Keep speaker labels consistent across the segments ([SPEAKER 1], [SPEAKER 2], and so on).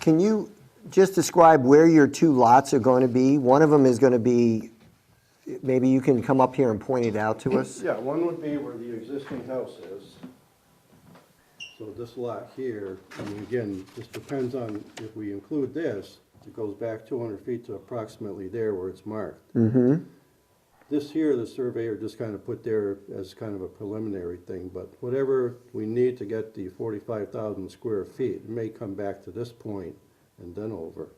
[SPEAKER 1] Can you just describe where your two lots are going to be? One of them is going to be, maybe you can come up here and point it out to us?
[SPEAKER 2] Yeah, one would be where the existing house is. So this lot here, I mean, again, this depends on, if we include this, it goes back two hundred feet to approximately there where it's marked. Mm-hmm. This here, the surveyor just kind of put there as kind of a preliminary thing, but whatever we need to get the forty-five thousand square feet, it may come back to this point and then over.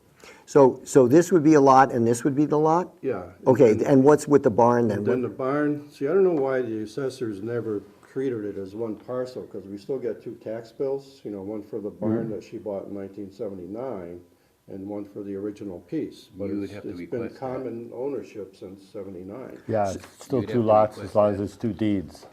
[SPEAKER 1] So, so this would be a lot and this would be the lot?
[SPEAKER 2] Yeah.
[SPEAKER 1] Okay, and what's with the barn
[SPEAKER 2] And then
[SPEAKER 1] then?
[SPEAKER 2] the barn, see, I don't know why the assessors never treated it as one parcel, because we still got two tax bills, you know, one for
[SPEAKER 3] Mm-hmm.
[SPEAKER 2] the barn that she bought in nineteen seventy-nine, and one for the original piece, but
[SPEAKER 3] You would
[SPEAKER 2] it's,
[SPEAKER 3] have to
[SPEAKER 2] it's been
[SPEAKER 3] request that.
[SPEAKER 2] common ownership since seventy-nine.
[SPEAKER 4] Yeah, it's still
[SPEAKER 3] you'd
[SPEAKER 4] two
[SPEAKER 3] have to
[SPEAKER 4] lots
[SPEAKER 3] request
[SPEAKER 4] as long as it's two deeds.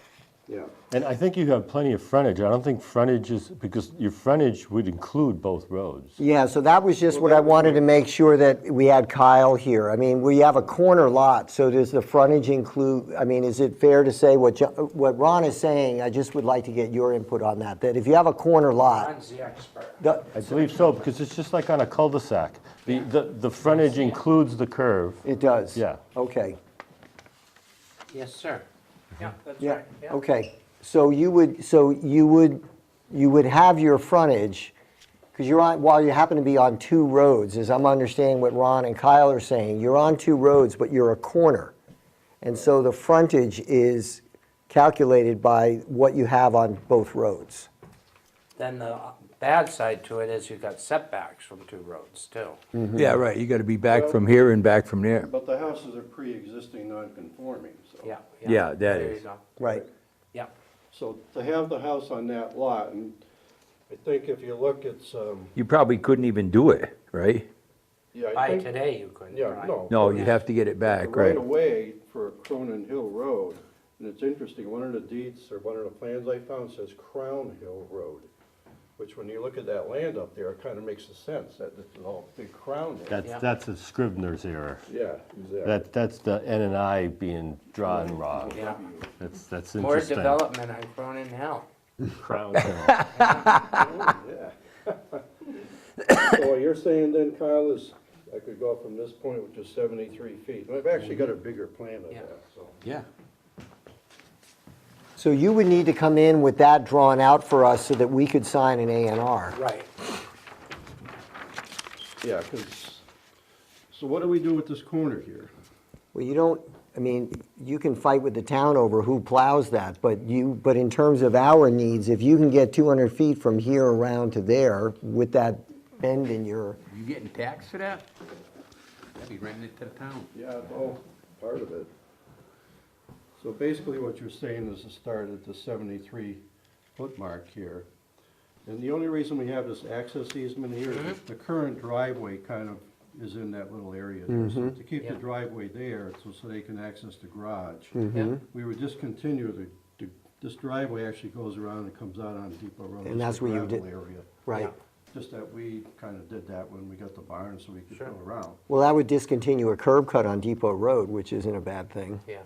[SPEAKER 2] Yeah,
[SPEAKER 4] And I think you have plenty of frontage. I don't think frontage is, because your frontage would include both roads.
[SPEAKER 1] Yeah, so that was just what I wanted to make sure that we had Kyle here. I mean, we have a corner lot, so does the frontage include, I mean, is it fair to say what, Jo- what Ron is saying? I just would like to get your input on that, that if you have a corner lot,
[SPEAKER 5] Ron's the expert.
[SPEAKER 1] the-
[SPEAKER 4] I believe so, because it's just like on a cul-de-sac. The, the, the frontage includes the curve.
[SPEAKER 1] it does?
[SPEAKER 4] Yeah.
[SPEAKER 1] Okay.
[SPEAKER 5] Yes, sir. Yeah, that's
[SPEAKER 1] Yeah,
[SPEAKER 5] right. yeah.
[SPEAKER 1] okay. So you would, so you would, you would have your frontage, because you're on, while you happen to be on two roads, as I'm understanding what Ron and Kyle are saying, you're on two roads, but you're a corner. And so the frontage is calculated by what you have on both roads.
[SPEAKER 5] Then the bad side to it is you've got setbacks from two roads
[SPEAKER 1] Mm.
[SPEAKER 5] too.
[SPEAKER 3] Mm-hmm.
[SPEAKER 6] Yeah, right, you gotta be back from here and back from there.
[SPEAKER 2] but the houses are pre-existing non-conforming, so.
[SPEAKER 5] Yeah.
[SPEAKER 6] Yeah, that
[SPEAKER 5] There you
[SPEAKER 6] is.
[SPEAKER 5] go.
[SPEAKER 1] Right.
[SPEAKER 5] Yeah.
[SPEAKER 2] So to have the house on that lot, and I think if you look, it's, um,
[SPEAKER 6] You probably couldn't even do it, right?
[SPEAKER 2] yeah, I
[SPEAKER 5] By
[SPEAKER 2] think-
[SPEAKER 5] today you couldn't,
[SPEAKER 2] Oh, Yeah,
[SPEAKER 5] right?
[SPEAKER 2] no.
[SPEAKER 6] No, you'd have to get it
[SPEAKER 2] the
[SPEAKER 6] back,
[SPEAKER 2] right
[SPEAKER 6] right?
[SPEAKER 2] away for Cronin Hill Road, and it's interesting, one of the deeds or one of the plans I found says Crown Hill Road, which when you look at that land up there, it kind of makes a sense that it's all big crown there.
[SPEAKER 4] That's,
[SPEAKER 5] Yeah.
[SPEAKER 4] that's a Scrivener's error.
[SPEAKER 2] Yeah, exactly.
[SPEAKER 4] That, that's the N and I being drawn wrong.
[SPEAKER 5] Yeah.
[SPEAKER 4] That's, that's
[SPEAKER 5] More
[SPEAKER 4] interesting.
[SPEAKER 5] development on Cronin Hill.
[SPEAKER 4] Crown Hill.
[SPEAKER 2] Yeah. So what you're saying then, Kyle, is I could go from this point, which is seventy-three feet. And I've actually got a bigger plan of
[SPEAKER 5] Yeah.
[SPEAKER 2] that, so.
[SPEAKER 6] Yeah.
[SPEAKER 1] So you would need to come in with that drawn out for us so that we could sign an A and R.
[SPEAKER 5] Right.
[SPEAKER 2] Yeah, because, so what do we do with this corner here?
[SPEAKER 1] Well, you don't, I mean, you can fight with the town over who plows that, but you, but in terms of our needs, if you can get 200 feet from here around to there with that bend in your,
[SPEAKER 3] You getting taxed for that? That'd be renting it to the town.
[SPEAKER 2] Yeah, it's all part of it. So basically what you're saying is to start at the seventy-three foot mark here. And the only reason we have this access easement here is
[SPEAKER 5] Mm-hmm.
[SPEAKER 2] the current driveway kind of is in that little area. there. So
[SPEAKER 1] Mm-hmm.
[SPEAKER 2] To keep the
[SPEAKER 5] Yeah.
[SPEAKER 2] driveway there, so, so they can access the garage.
[SPEAKER 1] Mm-hmm.
[SPEAKER 5] Yeah.
[SPEAKER 2] We would discontinue the, the- this driveway actually goes around and comes out on Depot Road.
[SPEAKER 1] And that's
[SPEAKER 2] where
[SPEAKER 1] where you did-
[SPEAKER 2] Area,
[SPEAKER 1] right?
[SPEAKER 2] just that we kind of did that when we got the barn, so we could
[SPEAKER 5] Sure.
[SPEAKER 2] go around.
[SPEAKER 1] Well, that would discontinue a curb cut on Depot Road, which isn't a bad thing,
[SPEAKER 5] Yeah.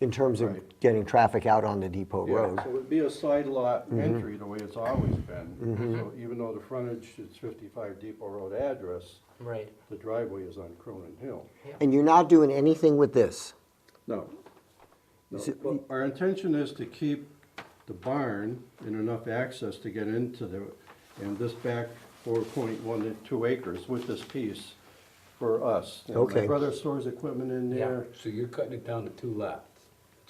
[SPEAKER 1] in terms of
[SPEAKER 2] Right.
[SPEAKER 1] getting traffic out on the Depot
[SPEAKER 2] Yeah,
[SPEAKER 1] Road.
[SPEAKER 2] so it'd be a side lot
[SPEAKER 1] Mm-hmm.
[SPEAKER 2] entry, the way it's always been. So even though the frontage is fifty-five Depot Road address,
[SPEAKER 5] Right.
[SPEAKER 2] the driveway is on Cronin Hill.
[SPEAKER 1] And you're not doing anything with this?
[SPEAKER 2] No. No,
[SPEAKER 1] Is it-
[SPEAKER 2] but our intention is to keep the barn and enough access to get into the, and this back four point one two acres with this piece for us. And
[SPEAKER 1] Okay.
[SPEAKER 2] My brother stores equipment in
[SPEAKER 5] Yeah.
[SPEAKER 2] there.
[SPEAKER 3] So you're cutting it down to two lots?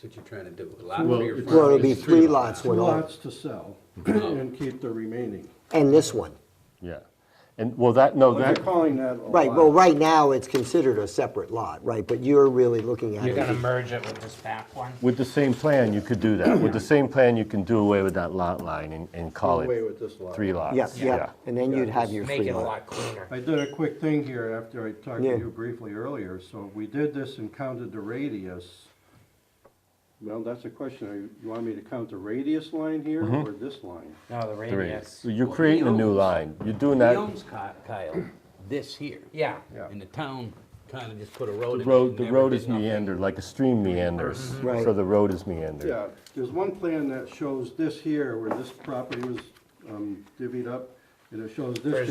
[SPEAKER 3] That's what you're trying to do, a lot
[SPEAKER 2] Well,
[SPEAKER 3] for your
[SPEAKER 2] it's-
[SPEAKER 3] front.
[SPEAKER 1] Well, it'll be three lots,
[SPEAKER 2] Two
[SPEAKER 1] when all-
[SPEAKER 2] lots to sell and keep the remaining.
[SPEAKER 1] and this one.
[SPEAKER 4] Yeah. And, well, that, no,
[SPEAKER 2] But They're
[SPEAKER 4] that,
[SPEAKER 2] calling that a lot.
[SPEAKER 1] Right, well, right now, it's considered a separate lot, right? But you're really looking at
[SPEAKER 5] You're gonna
[SPEAKER 1] it.
[SPEAKER 5] merge it with this back one?
[SPEAKER 4] with the same plan, you could do that. With the same plan, you can do away with that lot line and, and call
[SPEAKER 2] Away
[SPEAKER 4] it
[SPEAKER 2] with this lot.
[SPEAKER 4] three lots.
[SPEAKER 1] Yeah, yeah, and then you'd have your
[SPEAKER 5] Make
[SPEAKER 1] free
[SPEAKER 5] it a
[SPEAKER 1] lot.
[SPEAKER 5] lot cleaner.
[SPEAKER 2] I did a quick thing here after I talked
[SPEAKER 1] Yeah.
[SPEAKER 2] to you briefly earlier, so we did this and counted the radius. Well, that's a question, Are you- you want me to count the radius line here or this line?
[SPEAKER 5] No, the
[SPEAKER 4] Three.
[SPEAKER 5] radius.
[SPEAKER 4] So you're creating a new line. You're doing
[SPEAKER 3] He
[SPEAKER 4] that.
[SPEAKER 3] owns Ky- Kyle, this here.
[SPEAKER 5] Yeah.
[SPEAKER 2] Yeah.
[SPEAKER 3] And the town kinda just put a road
[SPEAKER 4] The
[SPEAKER 3] in.
[SPEAKER 4] road, the road is meandered, like a stream meanders,
[SPEAKER 1] Right.
[SPEAKER 4] so the road is meandered.
[SPEAKER 2] Yeah, there's one plan that shows this here where this property was um, divvied up, and it shows this
[SPEAKER 5] There's